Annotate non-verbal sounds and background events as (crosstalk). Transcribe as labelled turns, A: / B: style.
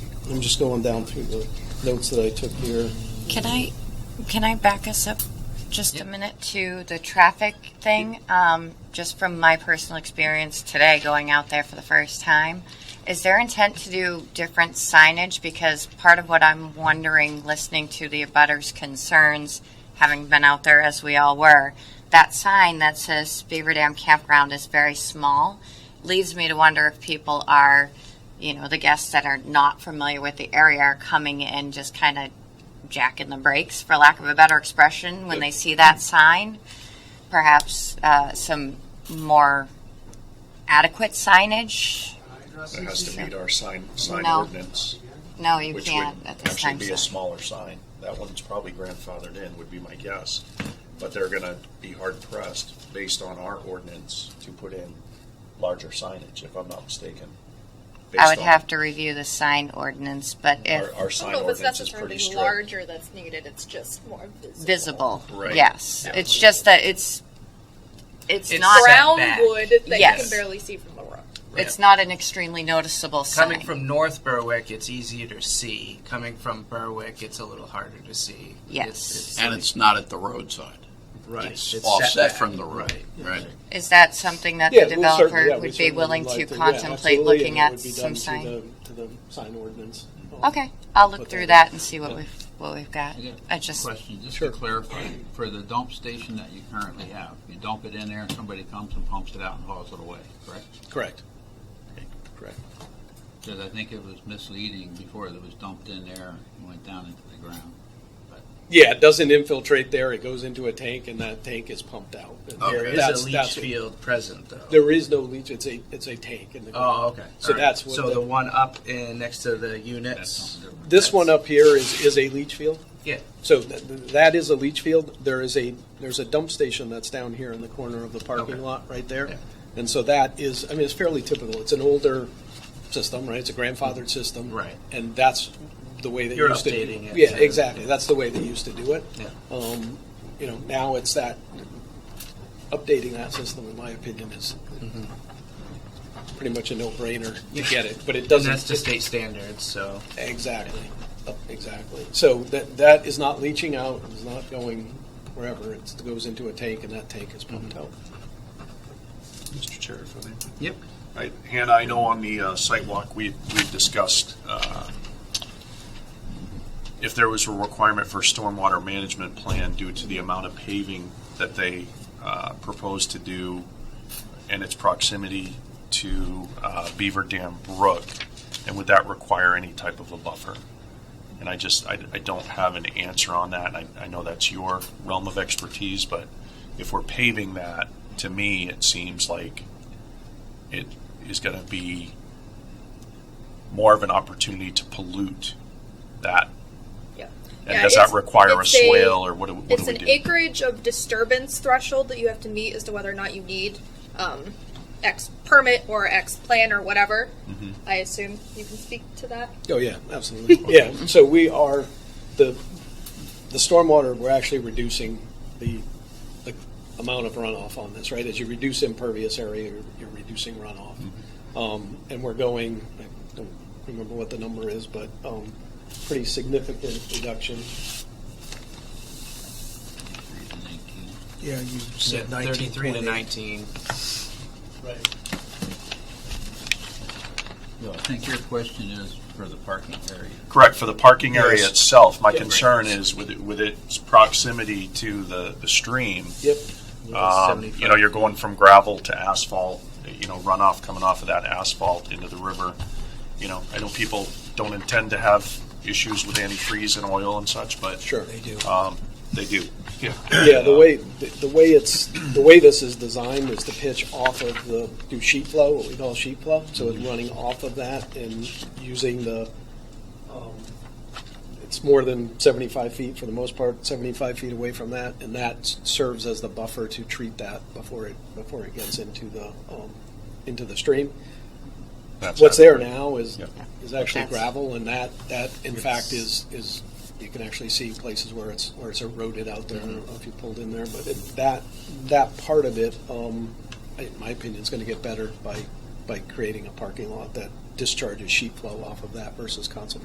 A: I'm just going down through the notes that I took here.
B: Can I, can I back us up just a minute to the traffic thing? Um, just from my personal experience today, going out there for the first time, is there intent to do different signage? Because part of what I'm wondering, listening to the abutters' concerns, having been out there as we all were, that sign that says Beaver Dam Campground is very small, leaves me to wonder if people are, you know, the guests that are not familiar with the area are coming in just kind of jacking the brakes, for lack of a better expression, when they see that sign. Perhaps uh, some more adequate signage.
C: It has to meet our sign, sign
B: No.
C: ordinance,
B: No, you
C: which
B: can't
C: would
B: at this
C: actually
B: time.
C: be a
B: so-
C: smaller sign. That one's probably grandfathered in, would be my guess. But they're gonna be hard pressed, based on our ordinance, to put in larger signage, if I'm not mistaken.
B: I
C: Based
B: would
C: on
B: have to review the sign ordinance, but if
C: Our, our
D: I
C: sign
D: don't know if it's
C: ordinance is pretty
D: necessarily
C: strict.
D: larger that's needed, it's just more visible.
B: visible,
C: Right.
B: yes.
C: Yeah.
B: It's just that it's it's,
E: It's
B: not
D: Brown
E: Setback.
D: wood that you
B: Yes.
D: can barely see from the road.
B: it's not an extremely noticeable sign.
E: Coming from North Berwick, it's easier to see. Coming from Berwick, it's a little harder to see.
B: Yes.
E: It's-
F: And it's not at the roadside.
E: Right. It's
F: Offset
E: setback.
F: from the road, right?
B: is that something that
A: Yeah,
B: the
A: we'll certainly-
B: developer
A: yeah, we
B: would be
A: certainly
B: willing
A: like
B: to
A: yeah,
B: contemplate
A: absolutely, and
B: looking
A: it
B: at
A: would be
B: some
A: done to
B: sign? Oh.
A: the- To the sign ordinance.
B: Okay, I'll look
A: But
B: through
A: then-
B: that and see what we've what we've got.
G: I got
B: I
G: a
B: just
G: Question, just
A: Sure.
G: to clarify, for the dump station that you currently have, you dump it in there and somebody comes and pumps it out and hauls it away, correct?
A: Correct. Correct.
G: Because I think it was misleading before it was dumped in there and went down into the ground.
A: Yeah, it doesn't infiltrate there. It goes into a tank and that tank is pumped out. And
E: oh, There is
A: that's-
E: a leach
A: that's what-
E: field present, though.
A: There is no leach. It's a, it's a tank in the ground.
E: oh, okay.
A: So
E: All
A: that's what
E: so
A: the-
E: the one up in next to the
G: That's
E: units.
G: something different.
A: This one up here is, is a leach field.
E: Yeah.
A: So th- th- that is a leach field. There is a, there's a dump station that's down here in the corner of the parking
E: Okay.
A: lot right
E: Yeah.
A: there. And so that is, I mean, it's fairly typical. It's an older system, right? It's a grandfathered system.
E: Right.
A: And that's the way that
E: You're
A: used to.
E: updating it
A: Yeah,
E: to-
A: exactly. That's the way they used to do it.
E: Yeah.
A: Um, you know, now it's that, updating that system, in my opinion, is pretty much a no-brainer to get it, but it
E: Mm-hmm. And
A: doesn't.
E: that's to state standards, so
A: Exactly, Uh, exactly. So that, that is not leaching out, it's not going wherever, it's- it goes into a tank and that tank is pumped out.
C: Mr. Chair, if I may.
E: yep.
C: I- Hannah, I know on the uh, site walk, we, we discussed uh, if there was a requirement for stormwater management plan due to the amount of paving that they uh, propose to do and its proximity to uh, Beaver Dam Brook, and would that require any type of a buffer? And I just, I, I don't have an answer on that. I, I know that's your realm of expertise, but if we're paving that, to me, it seems like it is going to be more of an opportunity to pollute that.
D: Yeah.
C: And
D: Yeah,
C: does that
D: it's-
C: require a
D: it's a-
C: swale or what do, what
D: It's
C: do we
D: an
C: do?
D: acreage of disturbance threshold that you have to meet as to whether or not you need um, X permit or X plan or whatever.
C: Mm-hmm.
D: I assume you can speak to that.
A: Oh, yeah, absolutely. (laughs) Yeah, so we are, the, the stormwater, we're actually reducing the, the amount of runoff on this, right? As you reduce impervious area, you're, you're reducing runoff. Um, and we're going, I don't remember what the number is, but, um, pretty significant reduction.
H: Yeah, you
E: Yeah,
H: said nineteen
E: Thirty-three to
H: point eight.
E: nineteen.
A: Right.
G: No, I think your question is for the parking area.
C: Correct, for the parking area
A: Yes.
C: itself, my
A: Yeah.
C: concern is with, it- with its proximity to the, the stream,
A: Yep.
C: um, you know, you're going from gravel to asphalt, you know, runoff coming off of that asphalt into the river. You know, I know people don't intend to have issues with antifreeze and oil and such, but
A: Sure.
H: They do.
C: um, they do. Yeah.
A: Yeah, the way, the the way it's, the way this is designed is to pitch off of the, do sheet flow, what we call sheet flow. So it's running off of that and using the, um, it's more than 75 feet for the most part, 75 feet away from that. And that s- serves as the buffer to treat that before it, before it gets into the, um, into the stream.
C: That's
A: What's there
C: adequate.
A: now is,
C: Yep.
A: is actually
B: That's-
A: gravel and that, that in fact is, is, you can actually see places where it's, where it's eroded out there. I don't know if you pulled in there, but it- that, that part of it, um, in my opinion, is going to get better by, by creating a parking lot that discharges sheet flow off of that versus concentrated